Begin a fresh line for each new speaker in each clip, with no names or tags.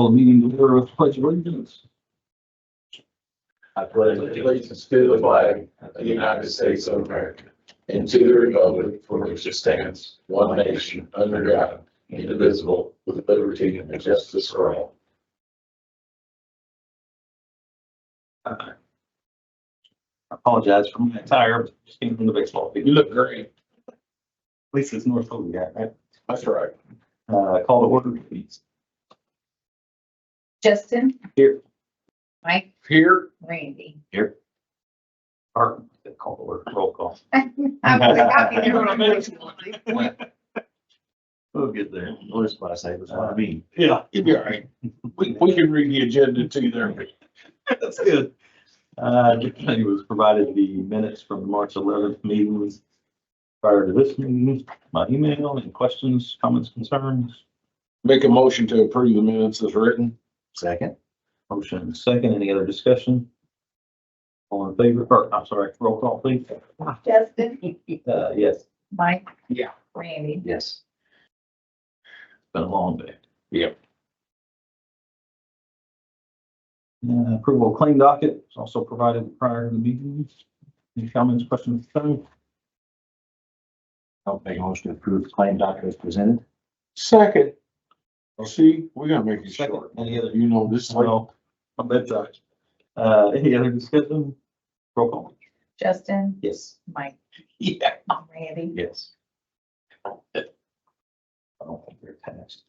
Call the meeting to order with the pledge of allegiance.
I pledge allegiance to the flag of the United States of America and to the republic for which it stands, one nation, under God, indivisible, with liberty and justice for all.
I apologize for my attire, just came from the baseball field.
You look great.
At least it's North Philly, yeah, right?
That's right.
Uh, call the order, please.
Justin.
Here.
Mike,
Here.
Randy.
Here. Or, call the order, roll call.
I'm really happy to know I'm originally.
We'll get there. Notice what I say, that's what I mean.
Yeah, you'll be all right. We, we can read the agenda too there.
That's good. Uh, Dick Kennedy was provided the minutes from the March eleventh meetings prior to this meeting, my email, any questions, comments, concerns?
Make a motion to approve the minutes as written.
Second. Motion and second, any other discussion? All in favor, or, I'm sorry, roll call please.
Justin,
Uh, yes.
Mike.
Yeah.
Randy.
Yes. Been a long day.
Yep.
Uh, approval of claim docket is also provided prior to the meeting. Any comments, questions? concerns?
I'll make a motion to approve the claim document as presented.
Second. See, we gotta make it
Second,
short.
any other?
You know, this is like
Well, I'm bedtime. Uh, any other discussion? Roll call.
Justin,
Yes.
Mike,
Yeah.
Randy.
Yes. I don't think they're passed.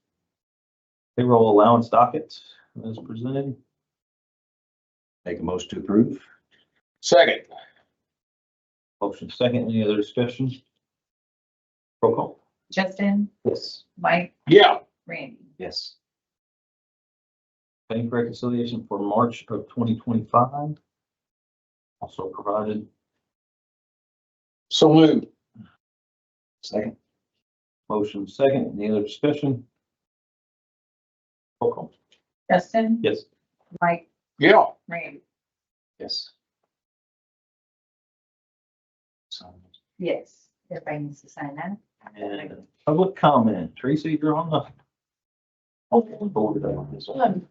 Payroll allowance docket as presented.
Make a motion to approve.
second.
Motion second, any other discussion? Roll call.
Justin,
Yes.
Mike,
Yeah,
Randy.
Yes.
Bank reconciliation for March of twenty twenty-five. Also provided
so moved.
Second.
motion second, any other discussion? Roll call.
Justin,
Yes.
Mike,
Yeah,
Randy.
Yes. So,
Yes, everybody needs to sign that.
And public comment, Tracy, you're on the.
Okay,
forward that on this one.
um,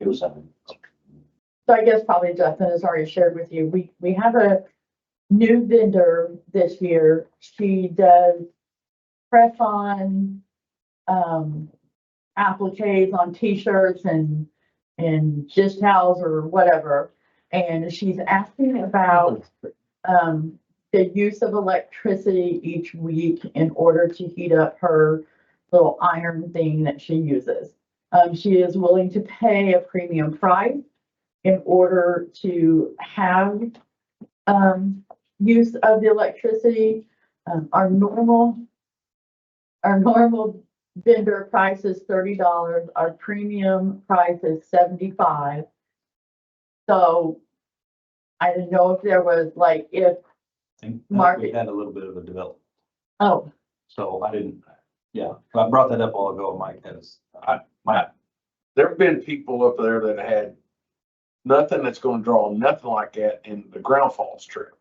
It was seven.
So I guess probably Justin has already shared with you, we, we have a new vendor this year. She does press on, um, appliques on t-shirts and, and just towels or whatever. And she's asking about, um, the use of electricity each week in order to heat up her little iron thing that she uses. Um, she is willing to pay a premium price in order to have um, use of the electricity. Um, our normal, our normal vendor price is thirty dollars, our premium price is seventy-five. So I didn't know if there was like, if,
I think We
Market.
had a little bit of a development.
oh,
So I didn't, yeah, I brought that up all ago, Mike, because I, my,
there've been people up there that had nothing that's gonna draw nothing like that in the ground falls trip.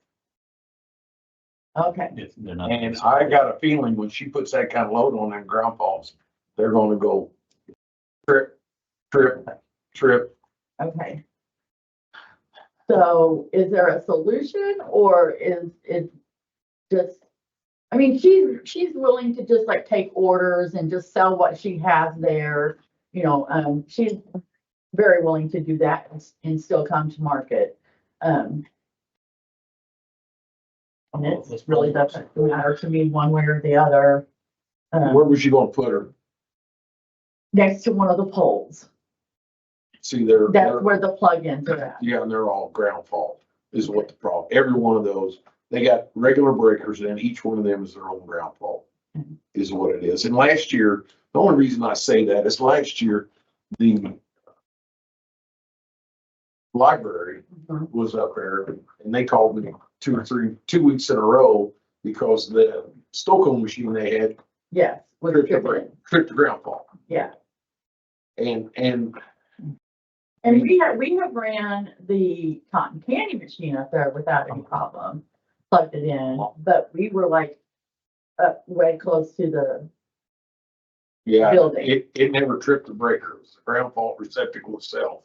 okay,
if they're not.
And I got a feeling when she puts that kind of load on them ground falls, they're gonna go trip, trip, trip.
okay. So is there a solution or is it just, I mean, she's, she's willing to just like take orders and just sell what she has there. You know, um, she's very willing to do that and, s- and still come to market. Um, and it's it Oh, really doesn't matter to me one way or the other. um,
Where was you gonna put her?
next to one of the poles.
See, they're,
That's
they're,
where the plug-ins are at.
yeah, and they're all ground fall is what the problem. Every one of those, they got regular breakers and each one of them is their own ground fall.
Mhm.
Is what it is. And last year, the only reason I say that is last year, the library
Mhm.
was up there and they called me two or three, two weeks in a row because the Stockholm machine they had
Yes. with
tripped the,
dribbling.
bra- tripped the ground ball.
Yeah.
And, and
And we have, we have ran the cotton candy machine up there without any problem, plugged uh, it in, but we were like up way close to the
Yeah,
Building.
it, it never tripped the breaker. It was the ground fault receptacle itself.